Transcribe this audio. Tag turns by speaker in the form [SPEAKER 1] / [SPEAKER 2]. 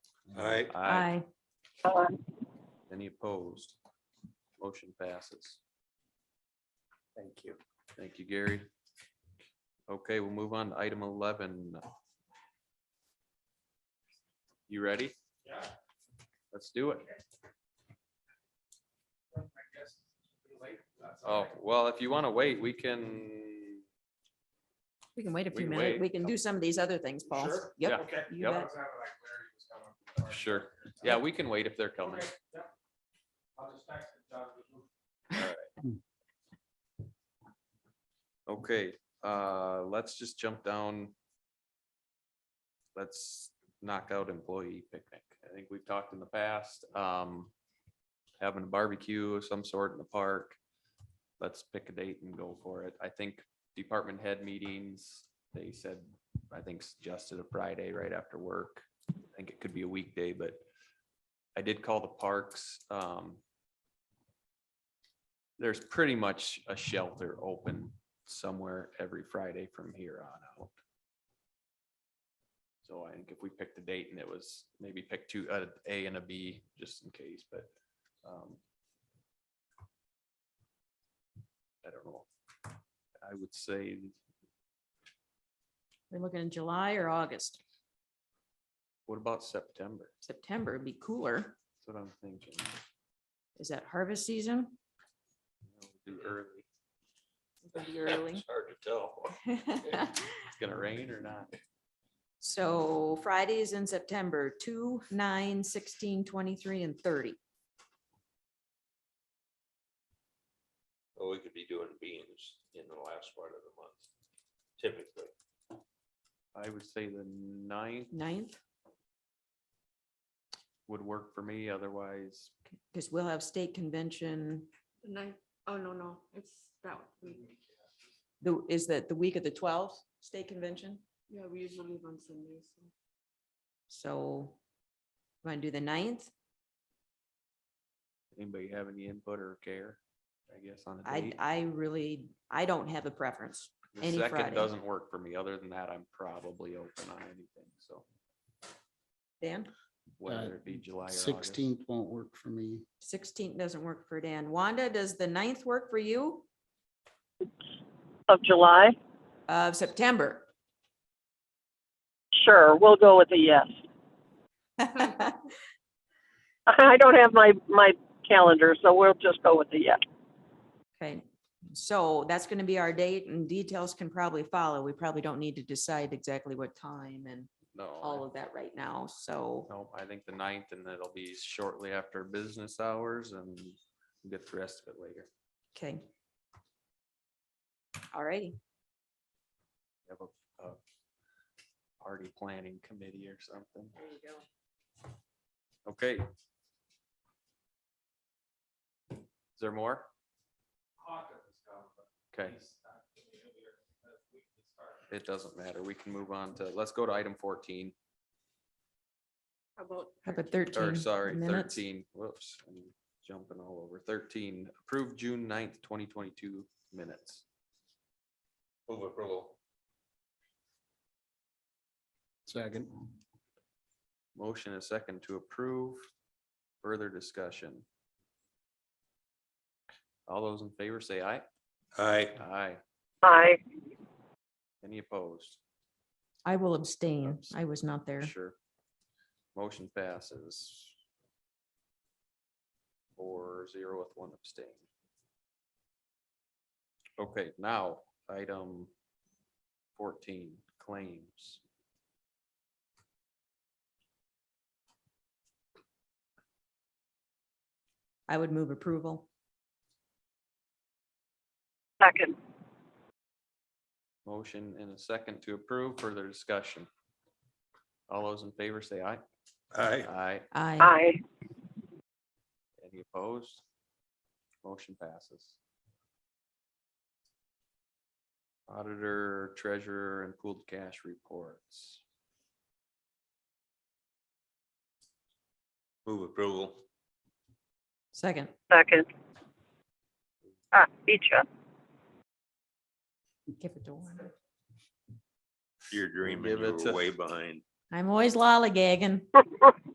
[SPEAKER 1] Aye.
[SPEAKER 2] Aye.
[SPEAKER 3] Any opposed? Motion passes. Thank you. Thank you, Gary. Okay, we'll move on to item eleven. You ready? Yeah. Let's do it. Oh, well, if you want to wait, we can,
[SPEAKER 2] We can wait a
[SPEAKER 3] We
[SPEAKER 2] few
[SPEAKER 3] can
[SPEAKER 2] minutes.
[SPEAKER 3] wait.
[SPEAKER 2] We can do some of these other things, Paul.
[SPEAKER 4] Sure?
[SPEAKER 2] Yep.
[SPEAKER 4] Okay.
[SPEAKER 2] you
[SPEAKER 3] Yep.
[SPEAKER 2] bet.
[SPEAKER 3] sure. Yeah, we can wait if they're coming.
[SPEAKER 4] Okay, yep. I'll just text it, John.
[SPEAKER 3] Okay, uh, let's just jump down. Let's knock out employee picnic. I think we've talked in the past, um, having a barbecue of some sort in the park. Let's pick a date and go for it. I think department head meetings, they said, I think suggested a Friday right after work. I think it could be a weekday, but I did call the parks, um, there's pretty much a shelter open somewhere every Friday from here on out. So I think if we picked a date and it was maybe pick two, uh, A and a B, just in case, but, um, I don't know. I would say
[SPEAKER 2] We're looking in July or August.
[SPEAKER 3] What about September?
[SPEAKER 2] September would be cooler.
[SPEAKER 3] That's what I'm thinking.
[SPEAKER 2] Is that harvest season?
[SPEAKER 3] Do early.
[SPEAKER 2] Pretty early.
[SPEAKER 3] hard to tell. It's gonna rain or not?
[SPEAKER 2] So Fridays in September, two, nine, sixteen, twenty-three, and thirty.
[SPEAKER 5] Well, we could be doing beans in the last part of the month, typically.
[SPEAKER 3] I would say the ninth
[SPEAKER 2] Ninth,
[SPEAKER 3] would work for me, otherwise
[SPEAKER 2] because we'll have state convention.
[SPEAKER 6] Nine, oh, no, no, it's that week.
[SPEAKER 2] The, is that the week of the twelfth, state convention?
[SPEAKER 6] Yeah, we usually leave on Sundays. so.
[SPEAKER 2] So want to do the ninth?
[SPEAKER 3] Anybody have any input or care, I guess, on the
[SPEAKER 2] I,
[SPEAKER 3] date?
[SPEAKER 2] I really, I don't have a preference.
[SPEAKER 3] The
[SPEAKER 2] any Friday.
[SPEAKER 3] Second doesn't work for me. Other than that, I'm probably open on anything, so
[SPEAKER 2] Dan,
[SPEAKER 3] whether it be July or August.
[SPEAKER 7] Sixteenth won't work for me.
[SPEAKER 2] sixteenth doesn't work for Dan. Wanda, does the ninth work for you?
[SPEAKER 8] of July?
[SPEAKER 2] Of September?
[SPEAKER 8] Sure, we'll go with a yes. I don't have my, my calendar, so we'll just go with a yes.
[SPEAKER 2] Okay, so that's gonna be our date and details can probably follow. We probably don't need to decide exactly what time and all
[SPEAKER 3] No,
[SPEAKER 2] of that right now, so.
[SPEAKER 3] no, I think the ninth and that'll be shortly after business hours and we'll get the rest of it later.
[SPEAKER 2] Okay. All righty.
[SPEAKER 3] Have a, a party planning committee or something.
[SPEAKER 2] There you go.
[SPEAKER 3] Okay. Is there more?
[SPEAKER 4] Hawkins is coming, but
[SPEAKER 3] Okay,
[SPEAKER 4] he's not gonna be here, but we can start.
[SPEAKER 3] it doesn't matter. We can move on to, let's go to item fourteen.
[SPEAKER 6] How about?
[SPEAKER 2] How about
[SPEAKER 6] 13?
[SPEAKER 2] thirteen?
[SPEAKER 3] Or sorry,
[SPEAKER 2] minutes.
[SPEAKER 3] thirteen, whoops, I'm jumping all over. Thirteen, approved June 9th, twenty twenty-two minutes.
[SPEAKER 5] Move approval.
[SPEAKER 7] Second.
[SPEAKER 3] Motion and second to approve. Further discussion. All those in favor say aye.
[SPEAKER 1] Aye.
[SPEAKER 3] Aye.
[SPEAKER 8] Aye.
[SPEAKER 3] Any opposed?
[SPEAKER 2] I will abstain. I was not there.
[SPEAKER 3] Oh, Sure. Motion passes. Four zero with one abstain. Okay, now, item fourteen, claims.
[SPEAKER 2] I would move approval.
[SPEAKER 8] Second.
[SPEAKER 3] Motion and a second to approve. Further discussion. All those in favor say aye.
[SPEAKER 1] Aye.
[SPEAKER 3] Aye.
[SPEAKER 2] Aye.
[SPEAKER 8] Aye.
[SPEAKER 3] Any opposed? Motion passes. Auditor, treasurer, and pooled cash reports.
[SPEAKER 5] Move approval.
[SPEAKER 2] Second.
[SPEAKER 8] Second. Ah, beat ya.
[SPEAKER 2] Give it to Wanda.
[SPEAKER 5] You're dreaming,
[SPEAKER 3] Give
[SPEAKER 5] you
[SPEAKER 3] it to-
[SPEAKER 5] were way behind.
[SPEAKER 2] I'm always lollygagging.